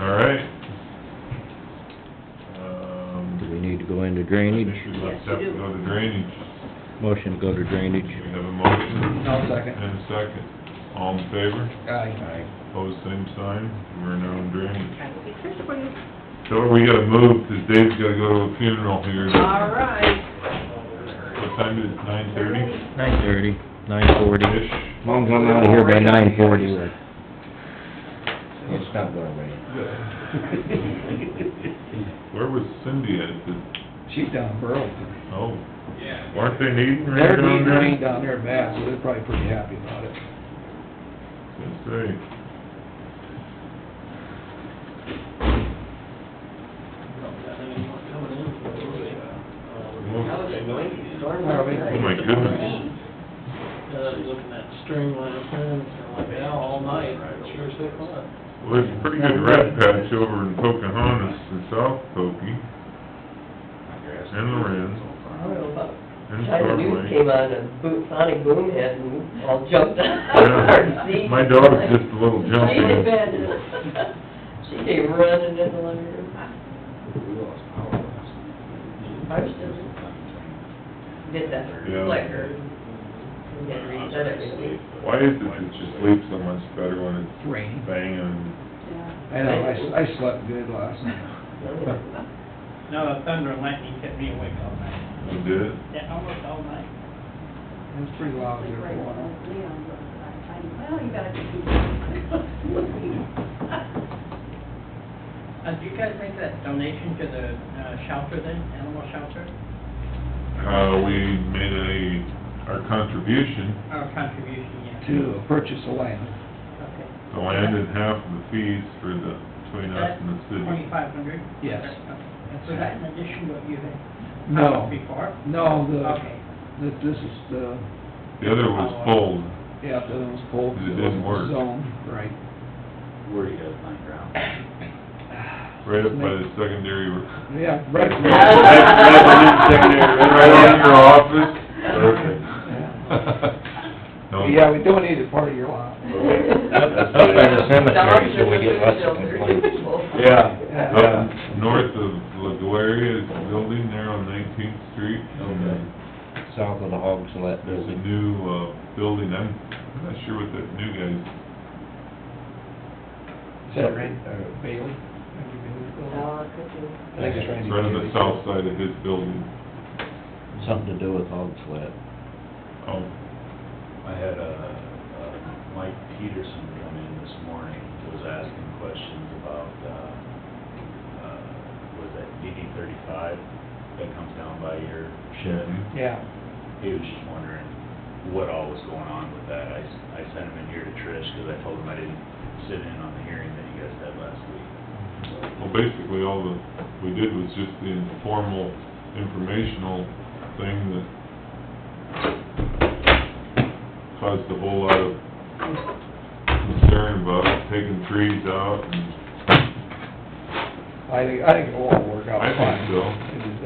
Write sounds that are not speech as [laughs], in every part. All right. Um, Do we need to go into drainage? I think we left up to go to drainage. Motion to go to drainage. We have a motion. I'll second. And a second. All in favor? Aye. Pose same sign. We're now in drainage. I will be there for you. So we gotta move, 'cause Dave's gotta go to a funeral here. All right. What time is it, nine thirty? Nine thirty, nine forty. Ish. As long as I'm out of here by nine forty, we're... It's not gonna rain. Where was Cindy at? Did- [laughs] She's down in Burlington. Oh. Weren't they needing rain They're down being there? rained down there bad, so they're probably pretty happy about it. Let's see. That was a great storm Oh, last my night. Oh, my goodness. Uh, looking at string line fence and like that all night, sure as heck was. Well, there's a pretty good red patch over in Pocahontas and South Pokie and Lorenz I don't know about, and time the news came Starway. on and Bo- Sonic Boomhead and we all jumped out. Yeah, My dog's just a little She had jumpy. been, she came running in the living room. Ours doesn't. Did that Yeah. flicker. And then reset everything. Why is it that you sleep so much better when it's It's raining. banging? I know, I, s- I slept good last [laughs] night. No, the thunder and lightning kept me awake all night, You did it? yeah, almost all night. It was pretty loud there for a while. Well, you [laughs] gotta keep. Uh, do you guys make that donation to the, uh, shelter then, animal shelter, Uh, we made a, our contribution, or contribution, yeah? To purchase the land. Okay. the land and half of the fees for the, between us and the city. Twenty-five hundred? Yes. And so that in addition to what you had? No. Before? No, Okay. the, the- this is the, The other was pulled. yeah, the other was cold. It didn't work. Zone, right. Where you guys find ground? Right up by the secondary, [laughs] right, Yeah, right. right by the secondary, right on your office. No. Yeah, we donated part of [laughs] your lot. Up by the cemetery, so we get lots of complaints. Yeah. Yeah. Up north of LaGuardia is a building there on Nineteenth Street. Okay. South of the Hogs Let There's a building. new, uh, building, I'm I'm not sure what that new guy's, Is that Randy, uh, Bailey? Randy Bailey's building? Oh, it could be. I think it's it's Randy right on the Bailey's. south side of his building. Something to do with Hogs Let. Oh, I had, uh, uh, Mike Peterson come in this morning, was asking questions about, uh, uh, was that DD thirty-five that comes down by your shed? Yeah. He was just wondering what all was going on with that. I, s- I sent him in here to Trish, cause I told him I didn't sit in on the hearing that you guys had last week. well, basically, all the, we did was just the informal, informational thing that caused a whole lot of concern about taking trees out and I think, I think it'll all work out I fine. think so.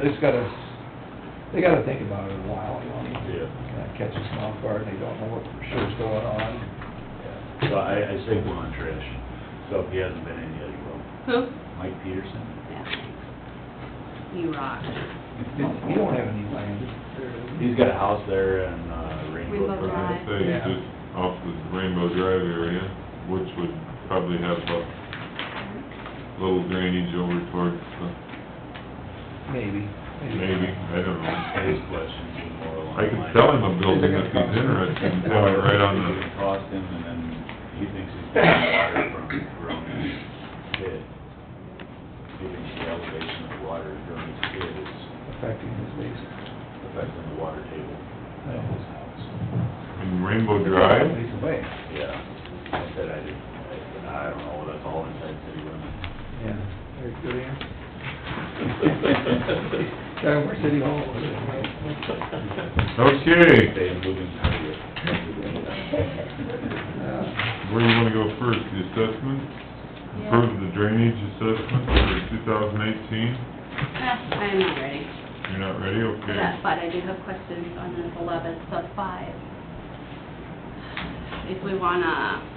They just gotta, they gotta think about it a while, you know, Yeah. kinda catches them off guard, they don't know what for sure's going on. So I, I say go on Trish, so if he hasn't been in yet, he will. Who? Mike Peterson? You rock. You don't have any land. He's got a house there in, uh, Rainbow Rainbow Brook. I was Drive. gonna say, Yeah. just off the Rainbow Drive area, which would probably have a little drainage over towards the, Maybe. maybe, I don't know. His questions were more along. I can the sell lines- him a building if he's interested, and tell him right on the, It Cost him, and then he thinks he's getting water from Gronin's pit. He thinks the elevation of water in Gronin's pit is Affecting his base. affecting the water table at his house. in Rainbow Drive, He's away, Yeah, I said I didn't, I said, I don't know, that's all inside city limits. yeah. Very good answer. [laughs] Down where City Hall is. [laughs] okay, They have moving target. [laughs] Yeah. where do you wanna go first, the assessment? Approve the drainage assessment for two thousand eighteen, I am not ready you're not ready, for okay. that, but I do have questions on this eleven sub five. If we wanna